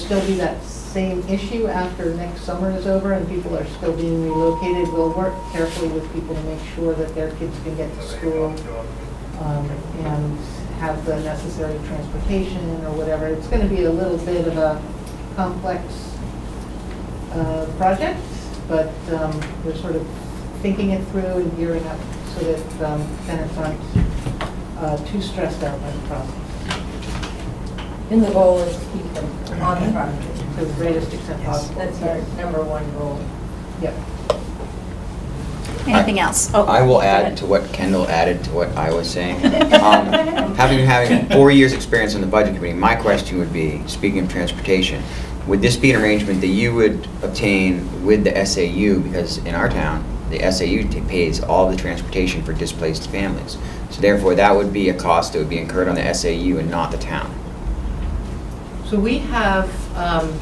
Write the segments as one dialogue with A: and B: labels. A: still be that same issue after next summer is over and people are still being relocated. We'll work carefully with people to make sure that their kids can get to school um, and have the necessary transportation or whatever. It's going to be a little bit of a complex uh, project, but um, we're sort of thinking it through and gearing up so that um, tenants aren't uh, too stressed out by the process
B: And the goal is to keep them on the property.
A: to the greatest extent possible.
B: That's our number one goal.
A: Yep.
C: Anything else? Oh,
D: I
C: go
D: will
C: ahead.
D: add to what Kendall added to what I was saying. Um, Having, having four years' experience on the Budget Committee, my question would be, speaking of transportation, would this be an arrangement that you would obtain with the SAU? Because in our town, the SAU ta- pays all the transportation for displaced families. So therefore, that would be a cost that would be incurred on the SAU and not the town.
A: So we have, um,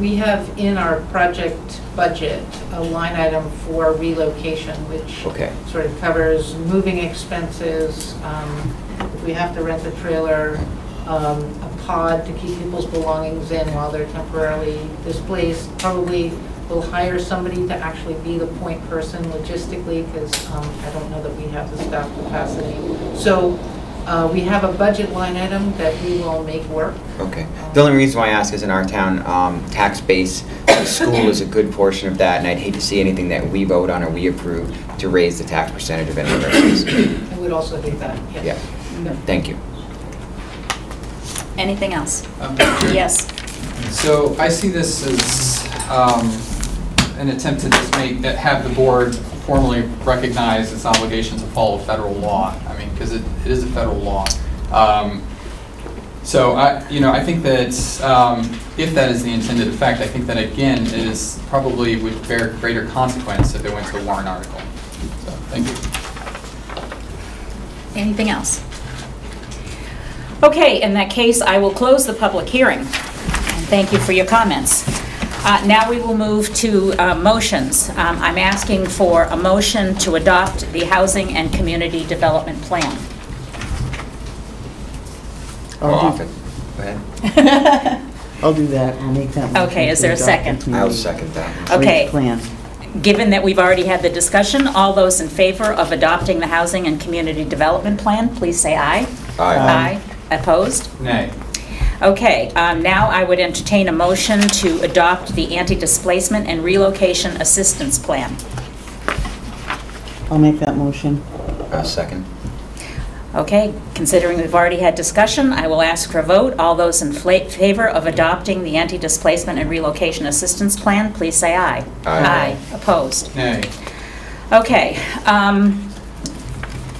A: we have in our project budget a line item for relocation, which
D: Okay.
A: sort of covers moving expenses, um, if we have to rent a trailer, um, a pod to keep people's belongings in while they're temporarily displaced, probably we'll hire somebody to actually be the point person logistically, because I don't know that we have the staff capacity. So uh, we have a budget line item that we will make work.
D: Okay. The only reason why I ask is in our town, um, tax base, the school is a good portion of that, and I'd hate to see anything that we vote on or we approve to raise the tax percentage of any of our schools.
A: I would also do that, yes.
D: Thank you.
C: Anything else?
E: Um,
C: Yes.
E: So I see this as um, an attempt to just make, that have the board formally recognize its obligation to follow federal law. I mean, because it it is a federal law. Um, So I, you know, I think that um, if that is the intended effect, I think that again, it is probably would bear greater consequence if it went to a warrant article. So, thank you.
C: Anything else? Okay, in that case, I will close the public hearing. And Thank you for your comments. Uh, Now we will move to uh, motions. Um, I'm asking for a motion to adopt the Housing and Community Development Plan.
D: Go
F: I'll
D: off
F: do-
D: it. Go ahead.
F: I'll do that, I'll make that motion.
C: Okay, is
F: to
C: there a
F: adopt the
C: second?
D: I'll
F: community
D: second that.
F: rate
C: Okay.
F: Plan.
C: Given that we've already had the discussion, all those in favor of adopting the Housing and Community Development Plan, please say aye.
D: Aye.
C: Opposed?
E: Nay.
C: Okay, um, now I would entertain a motion to adopt the Anti-Displacement and Relocation Assistance Plan.
F: I'll make that motion.
D: I'll second.
C: Okay, considering we've already had discussion, I will ask for a vote. All those in fla- favor of adopting the Anti-Displacement and Relocation Assistance Plan, please say aye.
D: Aye.
C: Opposed?
E: Nay.
C: Okay, um,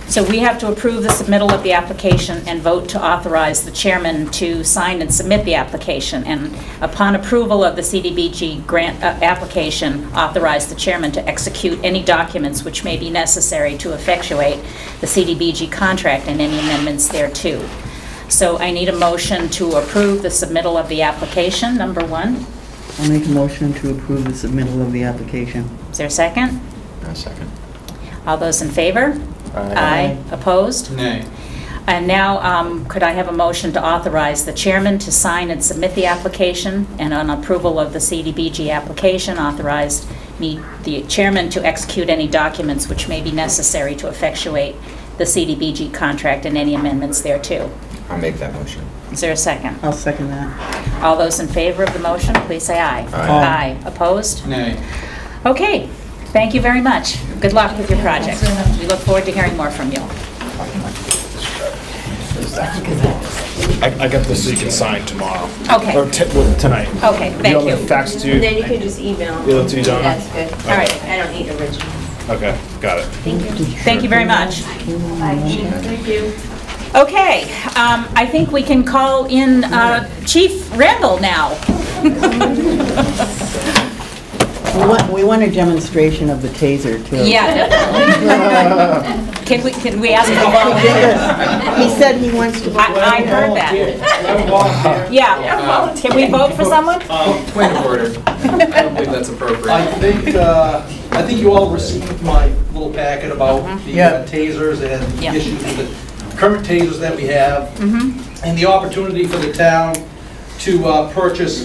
C: so we have to approve the submittal of the application and vote to authorize the chairman to sign and submit the application. And upon approval of the CDBG grant uh, application, authorize the chairman to execute any documents which may be necessary to effectuate the CDBG contract and any amendments thereto. So I need a motion to approve the submittal of the application, number one.
F: I'll make a motion to approve the submittal of the application.
C: Is there a second?
D: I'll second.
C: All those in favor?
F: Aye.
C: Opposed?
E: Nay.
C: And now, um, could I have a motion to authorize the chairman to sign and submit the application, and on approval of the CDBG application, authorized me, the chairman, to execute any documents which may be necessary to effectuate the CDBG contract and any amendments thereto?
D: I'll make that motion.
C: Is there a second?
F: I'll second that.
C: All those in favor of the motion, please say aye.
F: Aye.
C: Opposed?
E: Nay.
C: Okay, thank you very much. Good luck with your project. We look forward to hearing more from you.
G: I, I got this so you can sign tomorrow.
C: Okay.
G: Or t- well, tonight.
C: Okay,
G: Do you
C: thank
G: want me to
C: you.
G: fax it to you?
B: And then you can just email.
G: You'll do, Donna?
B: That's good.
C: All right.
B: I don't need originals.
G: Okay, got it.
C: Thank you very much.
B: Thank you.
C: Okay, um, I think we can call in uh, Chief Randall now.
F: We want, we want a demonstration of the taser, too.
C: Yeah, definitely. Can we, can we ask him to volunteer?
F: He said he wants to.
C: I I heard that. Yeah, can we vote for someone?
E: Um, Point of order. I don't believe that's appropriate.
H: I think, uh, I think you all received my little packet about the uh, tasers and
C: Yeah.
H: the issues with the current tasers that we have, and the opportunity for the town to uh, purchase